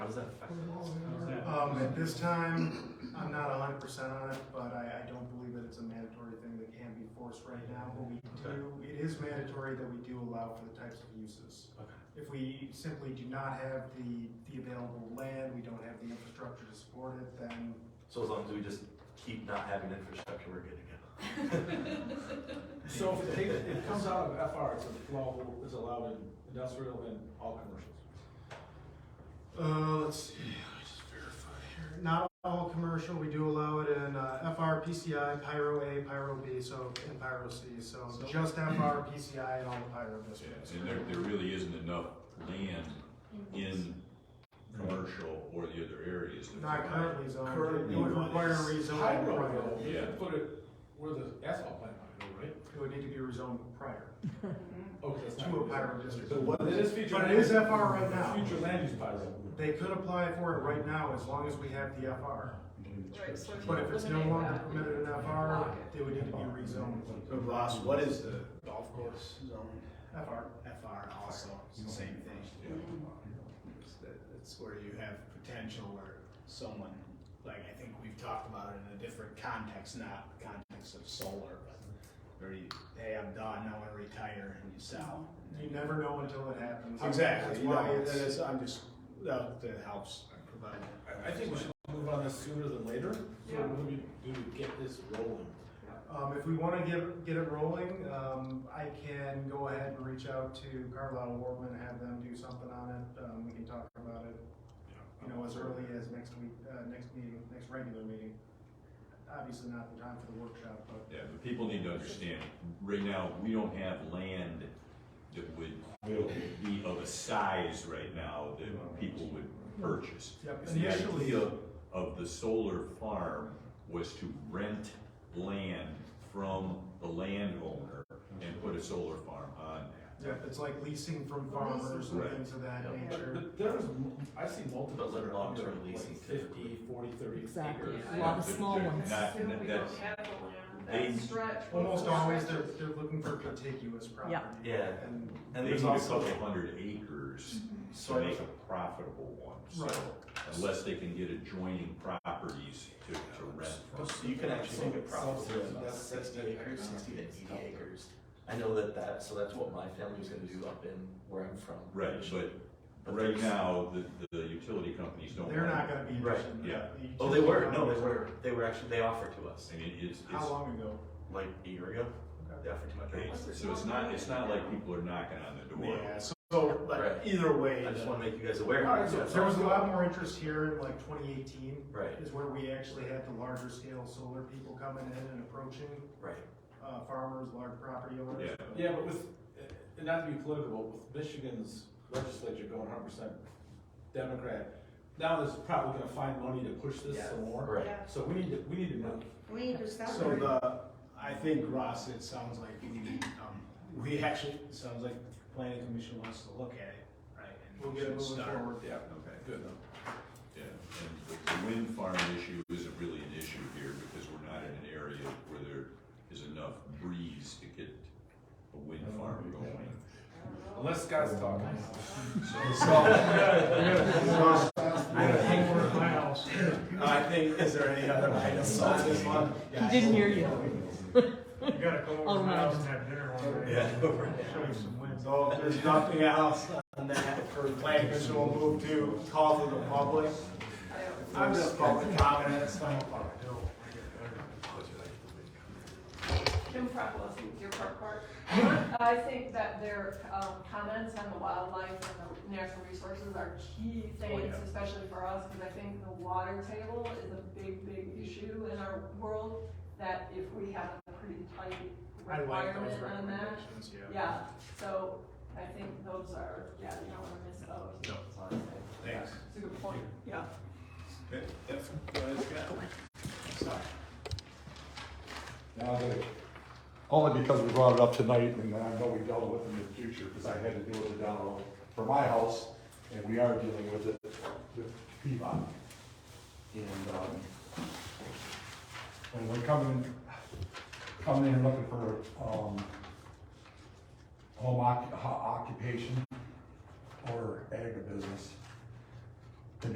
does that affect Mm-hmm. us? How's that- Um, at this time, I'm not hundred percent on it, but I, I don't believe that it's a mandatory thing that can be forced right now, but we do, it is mandatory that we do allow for the types of uses. Okay. If we simply do not have the, the available land, we don't have the infrastructure to support it, then So as long as we just keep not having infrastructure, we're good to So if it takes, it comes out of FR, it's allowable, it's allowed in industrial and all commercials. Uh, let's see, let me just verify here. Not all commercial, we do allow it in uh, FR, PCI, Pyro A, Pyro B, so, and Pyro C, so just FR, PCI, and all the Pyro districts. And there, there really isn't enough land in commercial or the other areas. to Not provide- currently zoned, it Currently would require rezoning Hydro, prior. though, you Yeah. can put it where the asphalt plant might go, right? It would need to be rezoned prior Okay, that's to a not. Pyro district. But what, it is future. But it is FR right now. Future land use bylaw. They could apply for it right now as long as we have the FR. Right, so if you But if it's no eliminate longer that, permitted in FR, they would need to be rezoned So Ross, what is the golf course zone? FR. FR also, it's the same thing. It's that- It's where you have potential where someone, like, I think we've talked about it in a different context, not the context of solar, but where you, hey, I'm done, I wanna retire and you sell. You never know until it happens. Exactly, That's you why know, it's- that is, I'm just, that, that helps provide. I, I think we should move on this sooner than later, so Yeah. what do we do to get this rolling? Um, if we wanna get, get it rolling, um, I can go ahead and reach out to Carlisle Warman, have them do something on it, um, we can talk about it, you know, as early as next week, uh, next meeting, next regular meeting. Obviously not the time for the workshop, but Yeah, but people need to understand, right now, we don't have land that would be of a size right now that people would purchase. Yep, And the initially- idea of the solar farm was to rent land from the landowner and put a solar farm on that. yeah, it's like leasing from farmers and Right. things of that Yep. nature. But there's, m- I see multiple. But like long-term that are like leasing Fifty, forty, thirty Exactly. acres. A lot of small They're ones. not- Assume we don't that's- have the land, they- that stretch. Almost always they're, they're looking for contiguous property. Yeah. And And They need there's a also, couple hundred acres to sort make of, a profitable one, so Right. unless they can get adjoining properties to, to rent from. so you can actually make a profit So- of about that's- sixty that's- acres, sixty to eighty acres. I know that that, so that's what my family was gonna do up in where I'm from. Right, but right there's- now, the, the utility companies don't. they're not want- gonna be Right, interested in that. The Oh, they were, no, utility they companies- were, they were actually, they offered to us, I mean, it's, How it's, long ago? like a year ago, they offered to my parents. it's- so it's not, it's not like people are knocking on the door. Yeah, so, so, Right. but either way. I just the- wanna make you guys aware. All right, so That's There was a all. lot more interest here in like twenty eighteen. Right, is where we actually had the larger scale solar people coming in and approaching right. uh, farmers, large property owners. Yeah, but with, and not to be political, with Michigan's legislature going hundred percent Democrat, now there's probably gonna find money to push this some more. Right. So we need to, we need to move. We need to stop. So the, I think Ross, it sounds like we, need, um, we actually, it sounds like the planning commission wants to look at it, right? and We'll we get it should moving start. forward. Yeah, Okay. good. Yeah, and the wind farm issue isn't really an issue here because we're not in an area where there is enough breeze to get a wind Oh, farm going. Unless Scott's talking. I think, is there any other items on this one? He didn't hear you. You gotta go Oh, no. have dinner one night. Show you some wins. So if there's nothing else on that, for the planning commission, we'll move to call to the public. I'm just public comments, so. Kim Propolis, Deer Park Park. I think that their um, comments on the wildlife and the natural resources are key things, especially for us, because I think the water table is a big, big issue in our world, that if we have a pretty tight I like those requirement on that. recommendations, yeah. Yeah, so I think those are, yeah, you don't want to miss those. That's all I'm saying. Thanks. It's a good point, yeah. That's what I got. Sorry. Now that it- Only because we brought it up tonight and I know we dealt with it in the future, because I had to deal with it down the road for my house, and we are dealing with it with Piedmont. And, um, and we're coming, coming in looking for, um, home occu- ho- occupation or agribusiness.